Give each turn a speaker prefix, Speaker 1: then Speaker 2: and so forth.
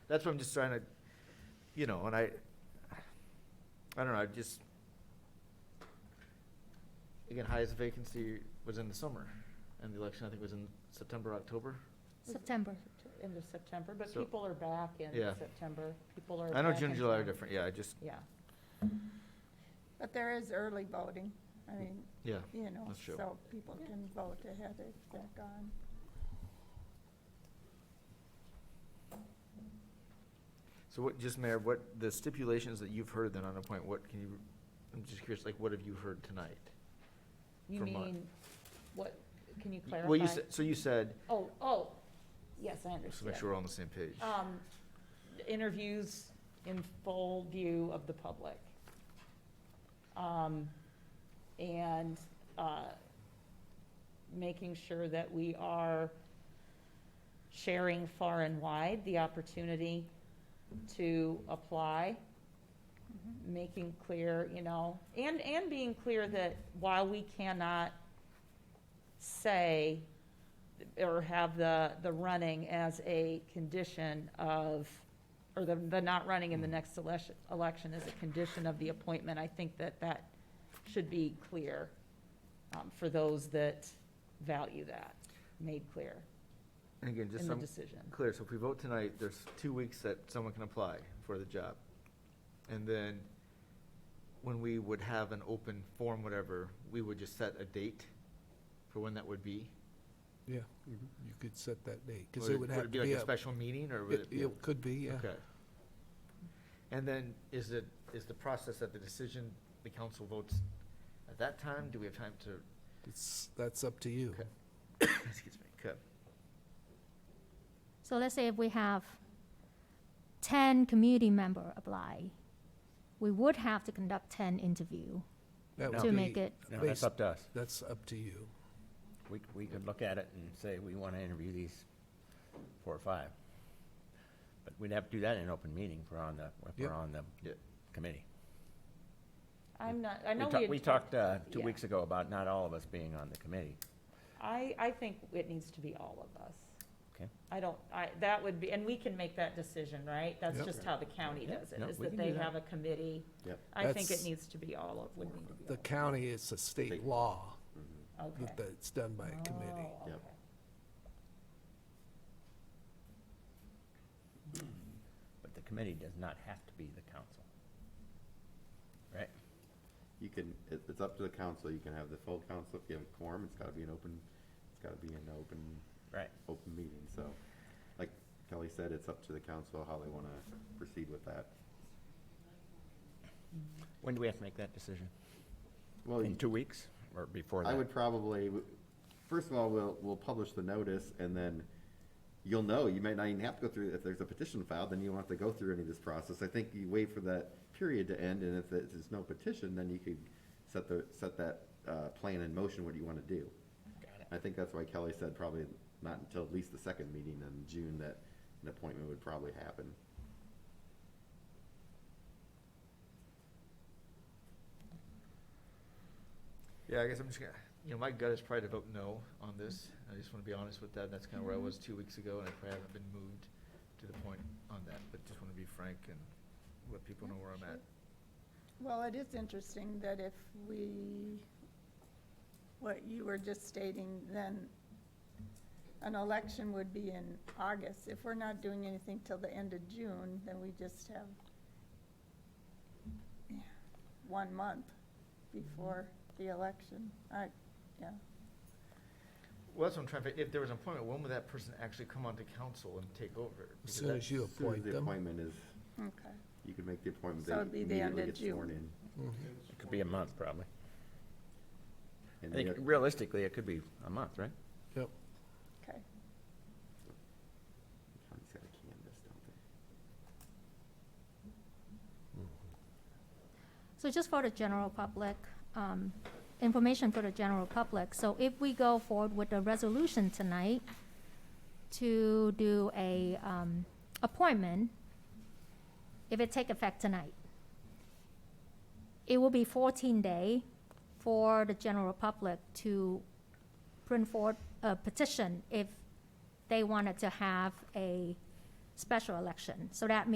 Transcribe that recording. Speaker 1: That's what I'm just trying to, you know, and I, I don't know, I just, again, highest vacancy was in the summer, and the election, I think, was in September, October.
Speaker 2: September.
Speaker 3: End of September, but
Speaker 1: So-
Speaker 3: people are back in
Speaker 1: Yeah.
Speaker 3: September. People are.
Speaker 1: I know
Speaker 3: back
Speaker 1: June,
Speaker 3: in
Speaker 1: and July are
Speaker 3: town.
Speaker 1: different, yeah, I just,
Speaker 3: Yeah.
Speaker 4: But there is early voting. I mean,
Speaker 1: yeah,
Speaker 4: you know,
Speaker 1: That's true.
Speaker 4: so people can vote ahead if they're gone.
Speaker 1: so what, just Mayor, what, the stipulations that you've heard then on a point, what can you, I'm just curious, like, what have you heard tonight?
Speaker 3: You
Speaker 1: For mine.
Speaker 3: mean, what, can you clarify?
Speaker 1: Well, you said, so you said,
Speaker 3: Oh, oh, yes,
Speaker 1: just to
Speaker 3: I
Speaker 1: make
Speaker 3: understand.
Speaker 1: sure we're all on the same page.
Speaker 3: Um, interviews in full view of the public. Um, and, uh, making sure that we are sharing far and wide the opportunity to apply.
Speaker 1: Mm-hmm.
Speaker 3: Making clear, you know, and, and being clear that while we cannot say or have the, the running as a condition of, or the, the not running
Speaker 1: Mm.
Speaker 3: in the next election, election as a condition of the appointment, I think that that should be clear um, for those that value that, made clear
Speaker 1: And again, just
Speaker 3: in the
Speaker 1: some,
Speaker 3: decision.
Speaker 1: clear, so if we vote tonight, there's two weeks that someone can apply for the job. And then, when we would have an open form, whatever, we would just set a date for when that would be?
Speaker 5: Yeah, you you could set that date, because
Speaker 1: Mm-hmm. Would
Speaker 5: it would have to
Speaker 1: be
Speaker 5: be.
Speaker 1: like a
Speaker 5: up-
Speaker 1: special meeting, or would
Speaker 5: it-
Speaker 1: it be? a-
Speaker 5: It could be, yeah.
Speaker 1: Okay. And then, is it, is the process that the decision, the council votes at that time? Do we have time to?
Speaker 5: It's, that's up to you.
Speaker 1: Okay. Excuse me. Okay.
Speaker 2: So let's say if we have ten community member apply, we would have to conduct ten interview
Speaker 5: That would
Speaker 2: to
Speaker 5: be-
Speaker 2: make it,
Speaker 6: No, that's
Speaker 5: based-
Speaker 6: up to us.
Speaker 5: That's up to you.
Speaker 6: We, we could look at it and say, we want to interview these four or five. But we'd have to do that in an open meeting if we're on the, if
Speaker 5: Yep.
Speaker 6: we're on the
Speaker 1: Yeah.
Speaker 6: committee.
Speaker 3: I'm not, I
Speaker 6: We
Speaker 3: know
Speaker 6: talked-
Speaker 3: we
Speaker 6: We
Speaker 3: had
Speaker 6: talked, uh, two
Speaker 3: yeah.
Speaker 6: weeks ago about not all of us being on the committee.
Speaker 3: I, I think it needs to be all of us.
Speaker 6: Okay.
Speaker 3: I don't, I, that would be, and we can make that decision, right? That's
Speaker 5: Yep.
Speaker 3: just how the county
Speaker 6: Yeah,
Speaker 3: does it,
Speaker 6: no,
Speaker 3: is
Speaker 6: we
Speaker 3: that
Speaker 6: can do
Speaker 3: they
Speaker 6: that.
Speaker 3: have a committee.
Speaker 6: Yep.
Speaker 3: I think it
Speaker 5: That's-
Speaker 3: needs to be all of, would need to be
Speaker 5: The
Speaker 3: all
Speaker 5: county, it's a state law
Speaker 3: of. Okay.
Speaker 5: that that's done by a committee.
Speaker 3: Oh,
Speaker 6: Yep.
Speaker 3: okay.
Speaker 6: But the committee does not have to be the council. Right?
Speaker 7: You can, it, it's up to the council, you can have the full council, if you have a quorum, it's gotta be an open, it's gotta be an open,
Speaker 6: Right.
Speaker 7: open meeting, so. Like Kelly said, it's up to the council how they wanna proceed with that.
Speaker 6: When do we have to make that decision?
Speaker 7: Well,
Speaker 6: In two weeks or before that?
Speaker 7: Oh, I would probably, first of all, we'll, we'll publish the notice and then you'll know, you might not even have to go through, if there's a petition filed, then you won't have to go through any of this process. I think you wait for that period to end and if there's no petition, then you could set the, set that, uh, plan in motion, what you wanna do.
Speaker 6: Got it.
Speaker 7: I think that's why Kelly said probably not until at least the second meeting in June that an appointment would probably happen.
Speaker 1: Yeah, I guess I'm just gonna, you know, my gut is probably to vote no on this. I just wanna be honest with that. That's kinda where I was two weeks ago, and I probably haven't been moved to the point on that, but just wanna be frank and let people know where I'm at.
Speaker 4: Well, it is interesting that if we, what you were just stating, then an election would be in August. If we're not doing anything till the end of June, then we just have one month before the election. I, yeah,
Speaker 1: Well, that's what I'm trying to, fi- if there was an appointment, when would that person actually come onto council and take over?
Speaker 5: As
Speaker 1: Because
Speaker 5: soon
Speaker 1: that-
Speaker 5: as you
Speaker 7: As soon as
Speaker 5: appoint
Speaker 7: The
Speaker 5: them.
Speaker 7: appointment is,
Speaker 4: okay.
Speaker 7: you can make the appointment,
Speaker 4: So it'd
Speaker 7: they
Speaker 4: be the end
Speaker 7: immediately
Speaker 4: of
Speaker 7: get sworn in.
Speaker 4: June.
Speaker 5: Mhm.
Speaker 6: It could be a month, probably. I
Speaker 7: And
Speaker 6: think
Speaker 7: you-
Speaker 6: realistically, it could be a month, right?
Speaker 5: Yep,
Speaker 4: Okay.
Speaker 7: County's gotta canvass, don't they?
Speaker 2: so just for the general public, um, information for the general public. So if we go forward with the resolution tonight to do a, um, appointment, if it take effect tonight, it will be fourteen day for the general public to print forth a petition if they wanted to have a special election. So that